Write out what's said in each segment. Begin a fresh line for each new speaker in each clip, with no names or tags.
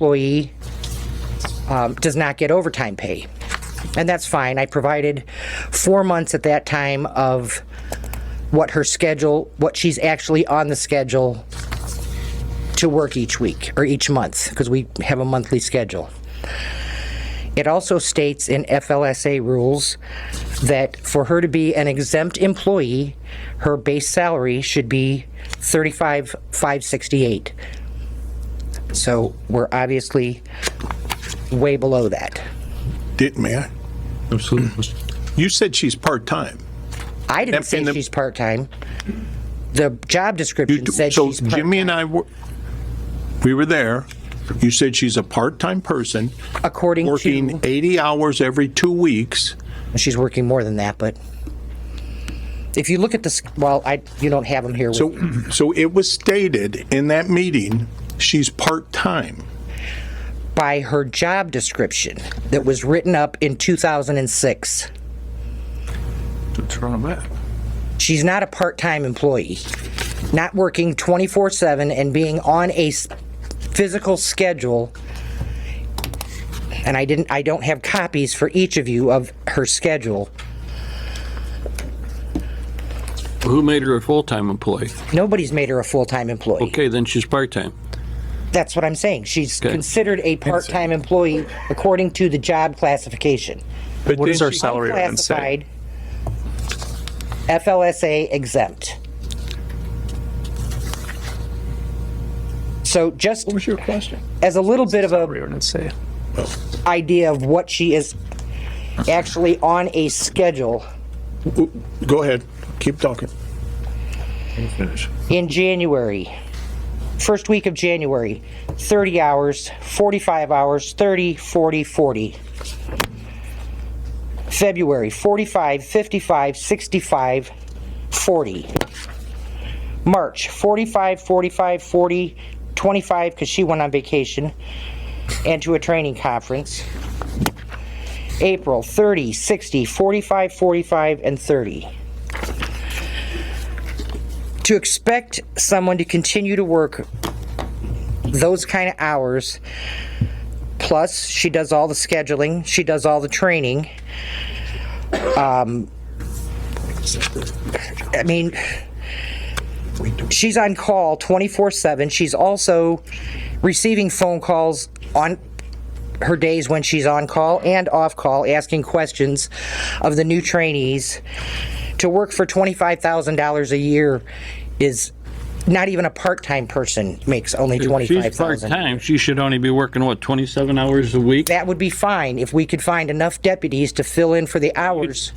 employee um, does not get overtime pay. And that's fine. I provided four months at that time of what her schedule, what she's actually on the schedule to work each week or each month, because we have a monthly schedule. It also states in FLSA rules that for her to be an exempt employee, her base salary should be 35,568. So we're obviously way below that.
Did, may I?
Absolutely.
You said she's part-time.
I didn't
And-
say
and the-
she's part-time. The job
You
description
do-
said
So
she's part-time,
Jimmy and I, were we were there. You said she's a part-time person,
according
working
to,
80 hours every two weeks.
she's working more than that, but if you look at this, well, I, you don't have them here with
So, so it was stated in that meeting, she's part-time.
by her job description that was written up in 2006.
Turn them back.
She's not a part-time employee, not working 24/7 and being on a s- physical schedule. And I didn't, I don't have copies for each of you of her schedule.
Who made her a full-time employee?
Nobody's made her a full-time employee.
Okay, then she's part-time.
That's what I'm saying. She's
Okay.
considered a part-time employee according to the job classification.
But what is
then
our
she-
salary then say?
Classified FLSA exempt. So just
What was your question?
as a little bit of
Salary
a
ordinance say.
idea of what she is actually on a schedule,
Go ahead, keep talking.
in January, first week of January, 30 hours, 45 hours, 30, 40, 40. February, 45, 55, 65, 40. March, 45, 45, 40, 25, because she went on vacation and to a training conference. April, 30, 60, 45, 45, and 30. to expect someone to continue to work those kind of hours plus she does all the scheduling she does all the training um, i mean she's on call 24-7 she's also receiving phone calls on her days when she's on call and off call asking questions of the new trainees to work for $25,000 a year is not even a part-time person makes only
If She's
25,000.
part-time, she should only be working, what, 27 hours a week?
That would be fine if we could find enough deputies to fill in for the hours.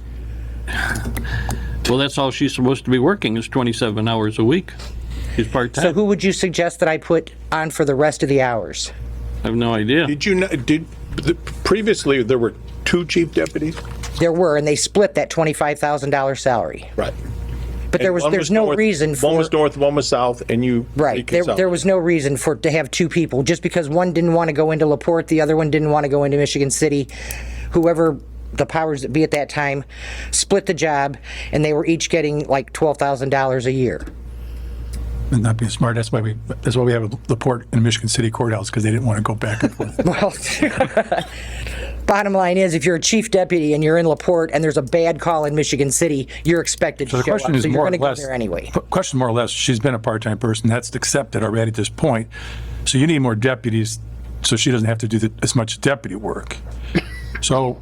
Well, that's all she's supposed to be working, is 27 hours a week. She's
So
part-time.
who would you suggest that I put on for the rest of the hours?
I have no idea.
Did you, kn- did, the- previously, there were two chief deputies?
There were, and they split that $25,000 salary.
Right.
But there was, there's no reason for.
One was north, one was south, and you.
Right. There, there was no reason for, to have two people, just because one didn't want to go into LaPorte, the other one didn't want to go into Michigan City. Whoever the powers that be at that time split the job, and they were each getting like $12,000 a year.
and not being smart. That's why we, that's why we have the port in Michigan City courthouse, because they didn't want to go back and forth.
Well, bottom line is, if you're a chief deputy and you're in LaPorte and there's a bad call in Michigan City, you're expected to
So the
show up.
question is
So you're
more or
going to go
less.
there anyway.
qu- Question more or less, she's been a part-time person, that's accepted already at this point. So you need more deputies, so she doesn't have to do the- as much deputy work. So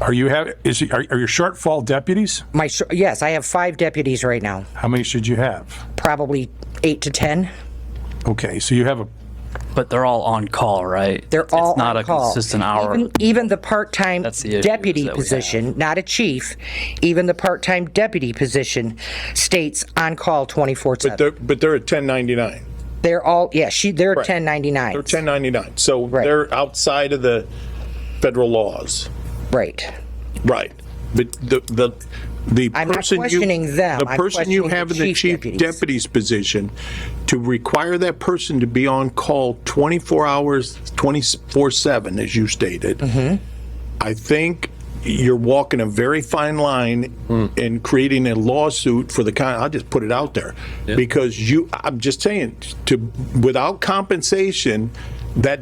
are you have, is, she- are are your shortfall deputies?
My, sh- yes, I have five deputies right now,
How many should you have?
probably eight to 10.
Okay, so you have a,
But they're all on call, right?
They're all
It's not
on
a
call.
consistent hour.
Even, even the part-time
That's the issue
deputy
that we have.
position, not a chief, even the part-time deputy position states on call 24/7.
They're- But they're at 1099.
They're all, yeah, she, they're
Right.
1099.
They're 1099. So they're outside of the federal laws.
Right.
Right. But the, the, the
I'm not
person you.
questioning them.
The
I'm
person you
questioning the
have in the
chief
chief
deputies.
deputy's position, to require that person to be on call 24 hours, 24/7, as you stated.
Mm-hmm.
I think you're walking a very fine line in creating a lawsuit for the kind, I'll just put it out there. Because you, I'm just saying, to, without compensation, that